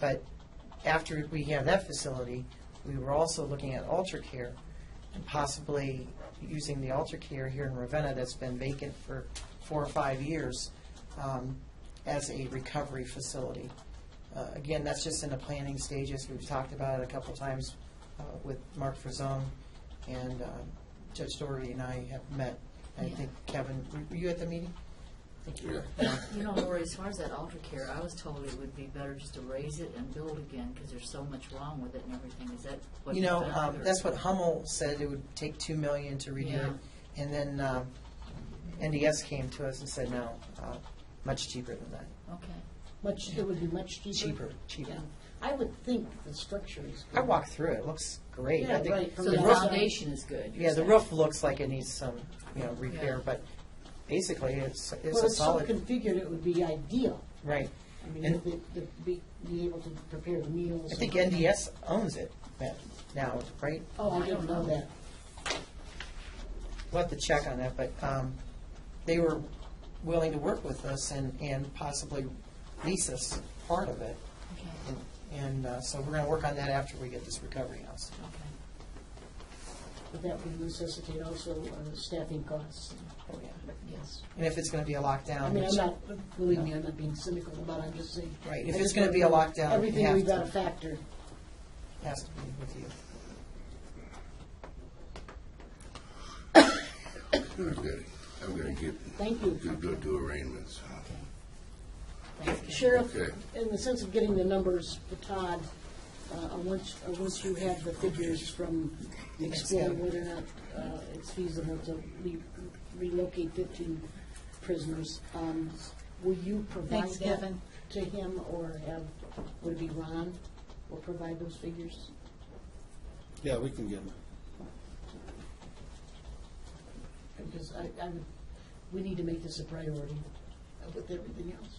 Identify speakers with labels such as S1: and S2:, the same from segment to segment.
S1: But after we have that facility, we were also looking at alter care and possibly using the alter care here in Ravenna that's been vacant for four or five years um, as a recovery facility. Uh, Again, that's just in the planning stages. We've talked about it a couple times uh, with Mark Frazone and um, Judge Doherty and I have met. I think Kevin, were you at the meeting?
S2: You know, Lori, as far as that alter care, I was told it would be better just to raise it and build again, because there's so much wrong with it and everything, is that what?
S1: You know,
S2: you've done,
S1: um,
S2: or-
S1: that's what Hummel said, it would take two million to redo
S2: Yeah.
S1: it. And then, um, NDS came to us and said, no, uh, much cheaper than that,
S2: Okay,
S3: Much, it would be much cheaper.
S1: cheaper,
S3: Yeah.
S1: cheaper.
S3: I would think the structure is.
S1: I walked through it, it looks great. I
S3: Yeah, right,
S1: think
S3: from
S2: so
S1: the
S2: the
S3: Yeah.
S1: roof-
S2: foundation is good. you're
S1: Yeah, the
S2: saying.
S1: roof looks like it needs some, you know,
S2: Yeah.
S1: repair, but basically, it's, it's
S3: Well,
S1: a
S3: it's so
S1: solid,
S3: configured, it would be ideal.
S1: right.
S3: I mean,
S1: And-
S3: to, to be, be able to prepare the meals.
S1: I think
S3: and-
S1: NDS owns it now, right?
S3: Oh, I didn't know that.
S1: We'll have to check on that, but um, they were willing to work with us and, and possibly lease us part of it.
S2: Okay,
S1: And- And uh, so we're going to work on that after we get this recovery house.
S2: okay.
S3: But that would necessitate also uh, staffing costs.
S1: Oh, yeah.
S2: Yes.
S1: And if it's going to be a
S3: I
S1: lockdown,
S3: mean, I'm
S1: which-
S3: not, believe me, I'm not being cynical about it, I'm just saying.
S1: Right, if it's
S3: I just
S1: gonna
S3: don't
S1: be a
S3: know.
S1: lockdown, we
S3: Everything
S1: have
S3: we've
S1: to.
S3: got to factor.
S1: has to be with you.
S4: I'm gonna- I'm gonna get,
S3: Thank you.
S4: do, do, do arraignments.
S3: Sheriff,
S4: Okay.
S3: in the sense of getting the numbers for Todd, uh, and once, uh, once you have the figures from Explore, whether or not uh, it's feasible to re- relocate fifteen prisoners, um, will you provide
S2: Thanks,
S3: that
S2: Kevin.
S3: to him, or have, would it be Ron will provide those figures?
S5: Yeah, we can get them.
S3: Because I, I would, we need to make this a priority uh, with everything else.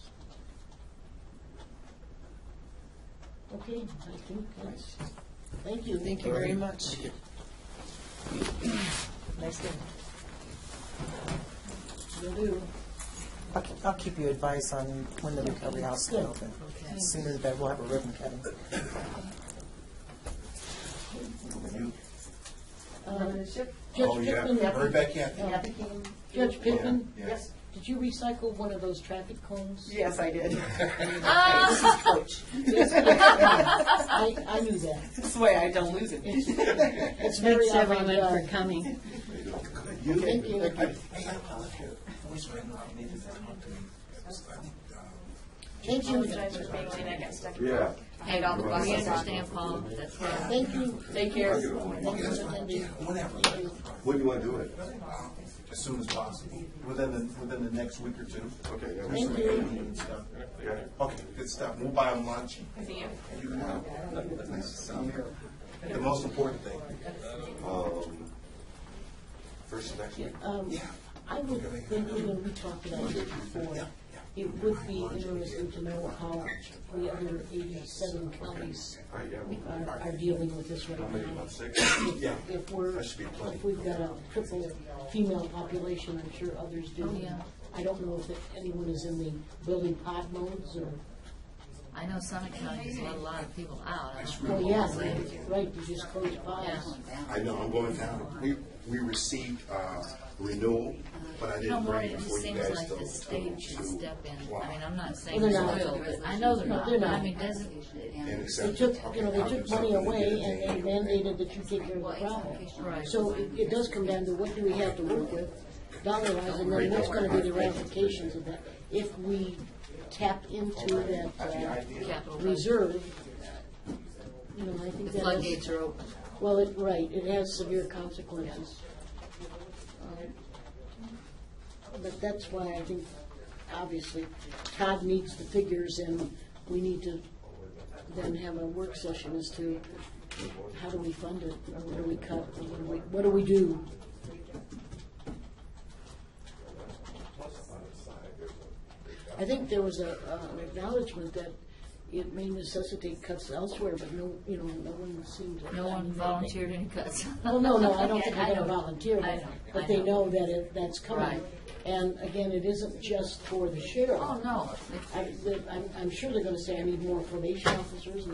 S3: Okay, I think that's, thank you.
S1: Thank you very much. Nice day.
S3: Will do.
S1: I'll ke- I'll keep you advice on when the recovery house can open.
S2: Okay.
S1: As soon as that, we'll have a ribbon cutting.
S3: Um, Judge Pittman,
S6: Right Oh, back in.
S3: Judge Pittman,
S6: Yeah. Yes.
S3: did you recycle one of those traffic cones?
S1: Yes, I did.
S3: I, I knew that.
S1: This way I don't lose it.
S3: It's very avant-garde.
S2: coming.
S3: Thank you.
S6: Hey, I apologize. I wish I had not made this talk to me. I think, uh,
S3: Thank you,
S7: apologize for being late, I got stuck.
S4: Yeah.
S2: Hey,
S7: off the bus.
S2: we understand, Paul, that's why.
S3: thank you.
S7: Take care.
S3: Thank you, Cindy.
S6: Whenever,
S4: When do you wanna do it?
S6: as soon as possible, within the, within the next week or two.
S4: Okay, yeah.
S3: Thank you.
S6: And stuff. Okay, good stuff. We'll buy them lunch.
S7: See you.
S6: You can have nice to see you. The most important thing.
S4: Um, first of next week?
S3: Um, I would think, you know, we talked about this before, it would be interesting to know how the other eighty-seven counties
S4: All right, yeah, well,
S3: are, are dealing with this right
S4: maybe
S3: now.
S4: about six.
S6: Yeah.
S3: uh, If we're,
S4: That should be plenty.
S3: if we've got a triple female population, I'm sure others do.
S2: Oh, yeah.
S3: I don't know if anyone is in the building pod modes or, oh,
S2: I know Summit County's let a lot of people out. I don't know.
S3: well, yeah, right, you just close pods.
S4: I know, I'm going down. We, we received, uh, renewal, but I
S2: No
S4: didn't
S2: more,
S4: bring
S2: it
S4: it for
S2: just
S4: you
S2: seems
S4: guys
S2: like
S4: to.
S2: the state should
S4: to-
S2: step in.
S4: Wow.
S2: I mean, I'm not saying
S3: Well,
S2: they
S3: they're
S2: will,
S3: not.
S2: but I know they're
S3: No,
S2: not.
S3: they're not.
S2: I mean, doesn't,
S4: And
S3: They
S4: accept-
S3: took, you know,
S4: okay,
S3: they
S4: I'll
S3: took
S4: do something
S3: money
S4: to get
S3: away
S4: it
S3: and
S4: in.
S3: they mandated that you take care of the problem.
S2: Right.
S3: So it, it does come down to what do we have to work with, dollar wise, and then what's gonna be the ramifications of that? If we tap into that uh,
S2: capital budget.
S3: reserve, you know, I think
S2: The
S3: that is,
S2: floodgates are open.
S3: well, it, right, it has severe consequences. Um, But that's why I think, obviously, Todd needs the figures and we need to then have a work session as to how do we fund it, or what do we cut, or what do we, what do we do? I think there was a, uh, an acknowledgement that it may necessitate cuts elsewhere, but no, you know, no one seemed to.
S2: No one volunteered any cuts.
S3: Well, no, no, I don't think they're
S2: I
S3: gonna
S2: know.
S3: volunteer,
S2: I know, I
S3: but they
S2: know.
S3: know that it, that's coming.
S2: Right.
S3: And again, it isn't just for the sheriff.
S2: Oh, no. It's-
S3: I, I'm, I'm sure they're gonna say, I need more probation officers, and